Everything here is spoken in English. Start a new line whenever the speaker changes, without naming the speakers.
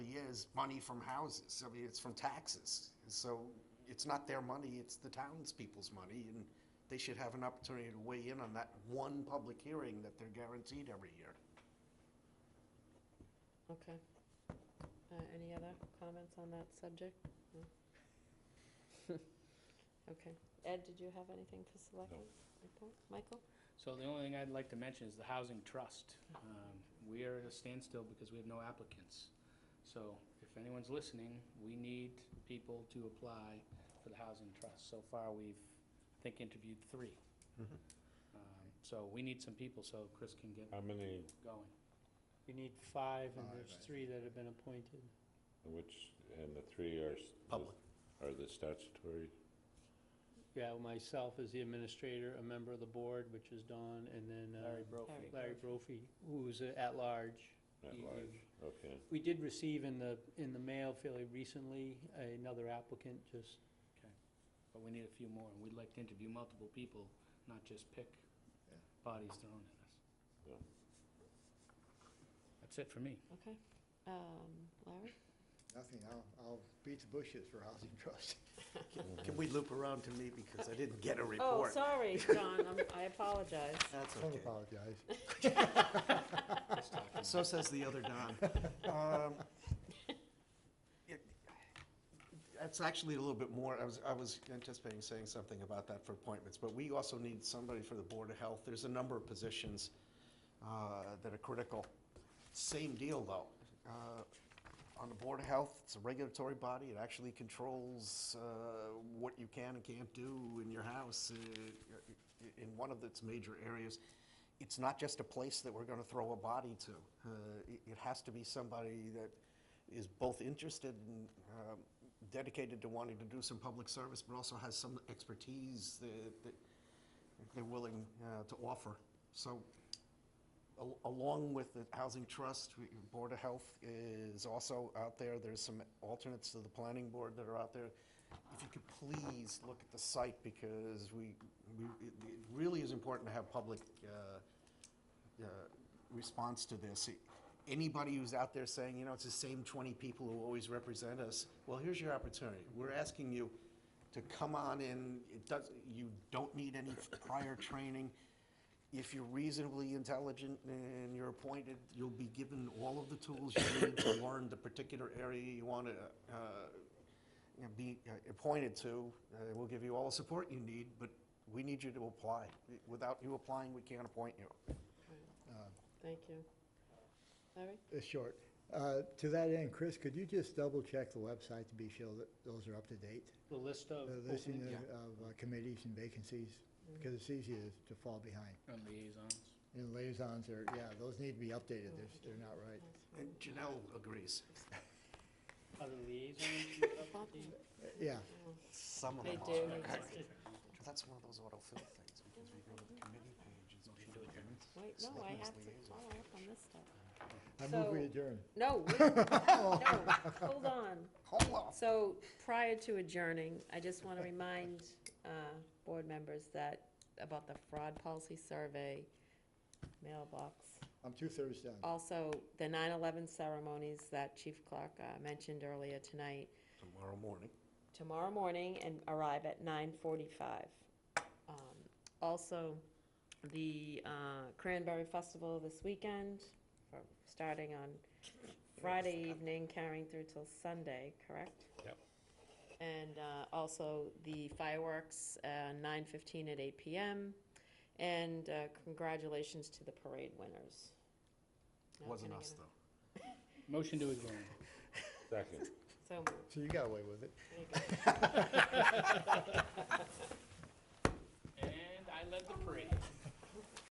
is money from houses. I mean, it's from taxes. So it's not their money, it's the townspeople's money, and they should have an opportunity to weigh in on that one public hearing that they're guaranteed every year.
Okay. Uh, any other comments on that subject? No? Okay. Ed, did you have anything for selectmen? report? Michael?
So the only thing I'd like to mention is the Housing Trust. Um, We are at a standstill because we have no applicants. So if anyone's listening, we need people to apply for the Housing Trust. So far, we've, I think, interviewed three.
Mm-hmm.
Um, So we need some people so Chris can get
How many,
going.
You need five, and
Five,
there's
I
three that have been appointed.
which, and the three are, s- the-
Public.
are the statutory?
Yeah, myself as the administrator, a member of the board, which is Don, and then uh,
Larry Brophy.
Larry.
Larry Brophy, who's uh, at large.
At
You-
large, okay.
We did receive in the, in the mail fairly recently, another applicant, just,
But we need a few more, and we'd like to interview multiple people, not just pick
Yeah.
bodies thrown at us.
Yeah.
That's it for me.
Okay. Um, Larry?
Nothing, I'll, I'll beat the bushes for housing trust.
Can we loop around to me because I didn't get a
Oh,
report?
sorry, John, I'm- I apologize.
That's
Don't
okay.
apologize.
So says the other Don. Um, it- That's actually a little bit more, I was, I was anticipating saying something about that for appointments, but we also need somebody for the Board of Health. There's a number of positions uh, that are critical. Same deal, though. Uh, On the Board of Health, it's a regulatory body, it actually controls uh, what you can and can't do in your house, uh, in one of its major areas. It's not just a place that we're gonna throw a body to. Uh, It it has to be somebody that is both interested and um, dedicated to wanting to do some public service, but also has some expertise that that they're willing uh, to offer. So Al- Along with the Housing Trust, we- Board of Health is also out there. There's some alternates to the Planning Board that are out there. If you could please look at the site, because we, we, it it really is important to have public uh, uh, response to this. Anybody who's out there saying, you know, it's the same 20 people who always represent us, well, here's your opportunity. We're asking you to come on in, it does, you don't need any prior training. If you're reasonably intelligent and you're appointed, you'll be given all of the tools you need to learn the particular area you want to you know, be uh, appointed to. Uh, We'll give you all the support you need, but we need you to apply. Without you applying, we can't appoint you.
Thank you. Larry?
It's short. Uh, To that end, Chris, could you just double-check the website to be sure that those are up to date?
the list of
The listing
openings.
of
yeah.
of, uh, committees and vacancies, because it's easy to- to fall behind.
And liaisons.
And liaisons are, yeah, those need to be updated, they're, they're not right.
And Uh, Janelle agrees.
Are the liaisons up to date?
Uh, Yeah,
Some of
They
them
do.
are.
need to-
That's one of those autofill things, because we go to the committee pages.
Oh, Wait, no, I have to follow up on this stuff.
I move we
So-
adjourn.
No, wait, no, hold on.
Hold on.
So prior to adjourning, I just want to remind uh, board members that, about the fraud policy survey mailbox.
I'm two-thirds done.
Also, the 9/11 ceremonies that Chief Clark uh, mentioned earlier tonight,
Tomorrow morning.
tomorrow morning and arrive at 9:45. Um, Also, the uh, Cranberry Festival this weekend, for- starting on Friday evening, carrying through till Sunday, correct?
Yep.
And uh, also the fireworks, uh, 9:15 at 8 PM. And uh, congratulations to the parade winners. Now,
Wasn't
can I
us,
get a-
though.
Motion to adjourn.
Second.
So moved.
So you got away with it.
There you go.